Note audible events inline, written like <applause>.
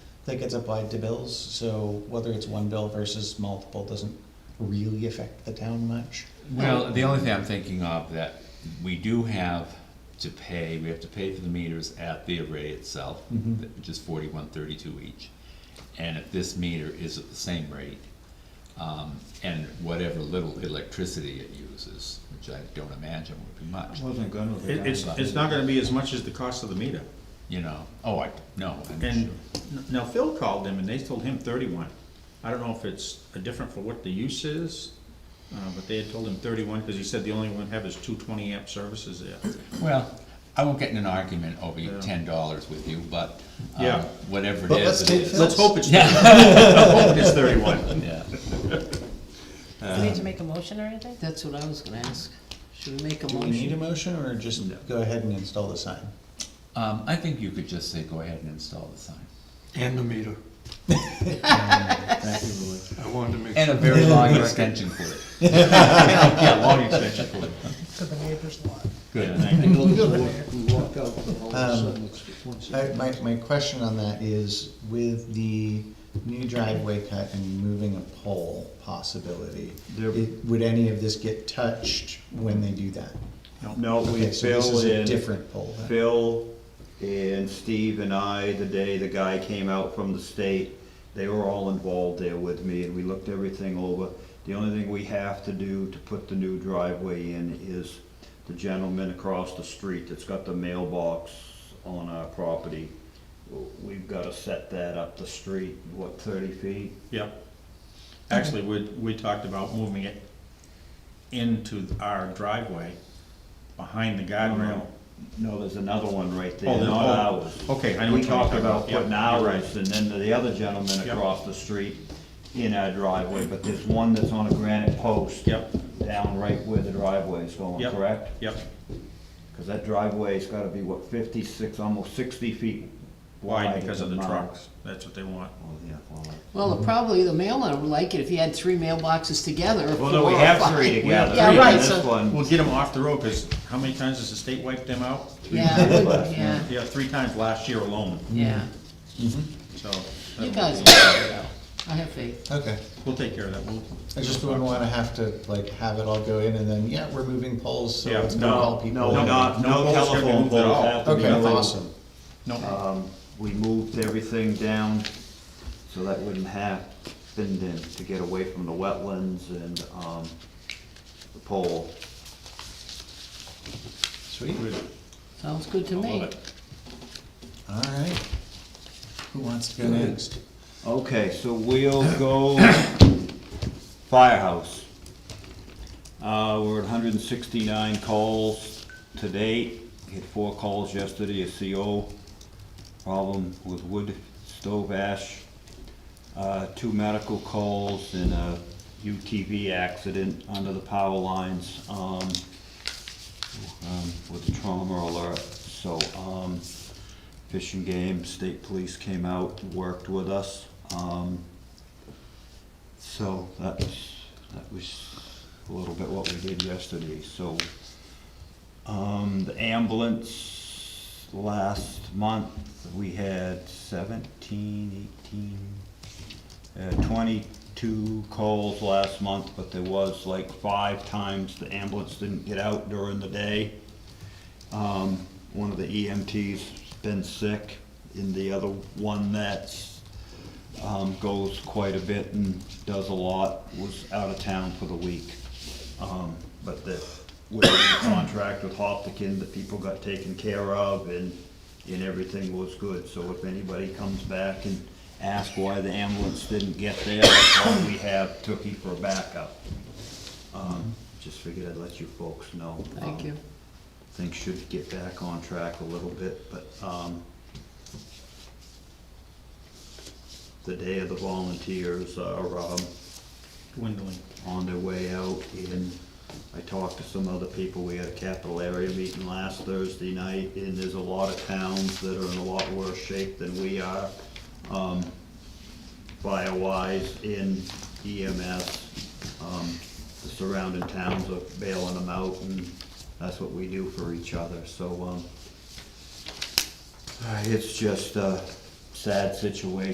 that gets applied to bills, so whether it's one bill versus multiple doesn't really affect the town much. Well, the only thing I'm thinking of that we do have to pay, we have to pay for the meters at the array itself, Mhm. which is forty-one thirty-two each. And if this meter is at the same rate, um, and whatever little electricity it uses, which I don't imagine would be much, wasn't gonna. look It, at it's, that. it's not gonna be as much as the cost of the meter. you know, oh, I, no, I'm sure. And now Phil called them and they told him thirty-one. I don't know if it's different for what the use is, uh, but they had told him thirty-one, cause he said the only one have is two twenty amp services there. Well, I won't get in an argument over your Yeah. ten dollars with you, but, Yeah. um, whatever it But let's is, it take is. Phil- Let's hope it's, Yeah, <laughs> let's hope it's thirty-one. <laughs> yeah. Do we need to make a motion or anything? That's what I was gonna ask. Should we make a Do we need a motion? motion, or just go ahead and install the sign? Um, I think you could just say, go ahead and install the sign. <laughs> And the meter. Right. I wanted to make And a very long extension for it. <laughs> Yeah, long extension cord. To the neighbor's lot. Good. And you'll just walk- you walk out and all of a Um, sudden it's just one I, second. my, my question on that is with the new driveway cut and moving a pole possibility, There- it- would any of this get touched when they do that? No, we, Okay, so this Phil is a and, different pole. then. Phil and Steve and I, the day the guy came out from the state, they were all involved there with me and we looked everything over. The only thing we have to do to put the new driveway in is the gentleman across the street that's got the mailbox on our property. We've gotta set that up the street, what, thirty feet? Yep. Actually, we, we talked about moving it into our driveway, behind the Uh-huh. guardrail. No, there's another one right Oh, there, there- not oh, ours. okay, I know We what you're talked talking about about, yeah, putting you're right. ours, and then the other gentleman Yep. across the street in our driveway, but there's one that's on a granite post. Yep. Down right where the driveway is going, Yep. correct? Yep, Because that driveway's gotta be, what, fifty-six, almost sixty feet why, wide. at because of the mouth. trucks, that's what they want. Oh, yeah, well, that- Well, probably the mailman would like it if he had three mailboxes together. or Well, no, we four or have five. three together. Yeah, and right, This so, one, We'll get them off the road, cause how many times has the state wiped them out? yeah, I would- yeah, Yeah, three times last year alone, yeah. so. that You will- guys will figure it out. I have faith. Okay, We'll take care of that, we'll. I just wouldn't wanna have to like have it all go in and then, yeah, we're moving poles, so Yeah, it's gonna no, call people. no, not, No no poles can be telephone moved at all. poles have to be Okay, moved. awesome. No, Um, we moved everything down so that wouldn't happen then, to get away from the wetlands and, um, the pole. Sweet, good. Sounds good to I me. love it. alright. Who wants to go next? Okay, so we'll go <coughs> firehouse. Uh, we're at hundred and sixty-nine calls to date, had four calls yesterday, a CO problem with wood stove ash, uh, two medical calls and a UTV accident under the power lines, um, um, with a trauma alert, so, um, Fish and Game, state police came out, worked with us, um, so that's, that was a little bit what we did yesterday, so. Um, the ambulance, last month, we had seventeen, eighteen, uh, twenty-two calls last month, but there was like five times the ambulance didn't get out during the day. Um, one of the EMT's been sick, and the other one that's, um, goes quite a bit and does a lot, was out of town for the week. Um, but the, with <coughs> the contract with Hopkinton, the people got taken care of and, and everything was good. So if anybody comes back and asks why the ambulance didn't get there, that's why we have Tookie for backup. Um, just figured I'd let you folks know. Thank Um, you. things should get back on track a little bit, but, um, the day of the volunteers are, um, Dwindling. on their way out, and I talked to some other people, we had a capital area meeting last Thursday night, and there's a lot of towns that are in a lot worse shape than we are, um, fire-wise, in EMS. Um, the surrounding towns are bailing them out, and that's what we do for each other, so, uh, um, it's just a sad situation.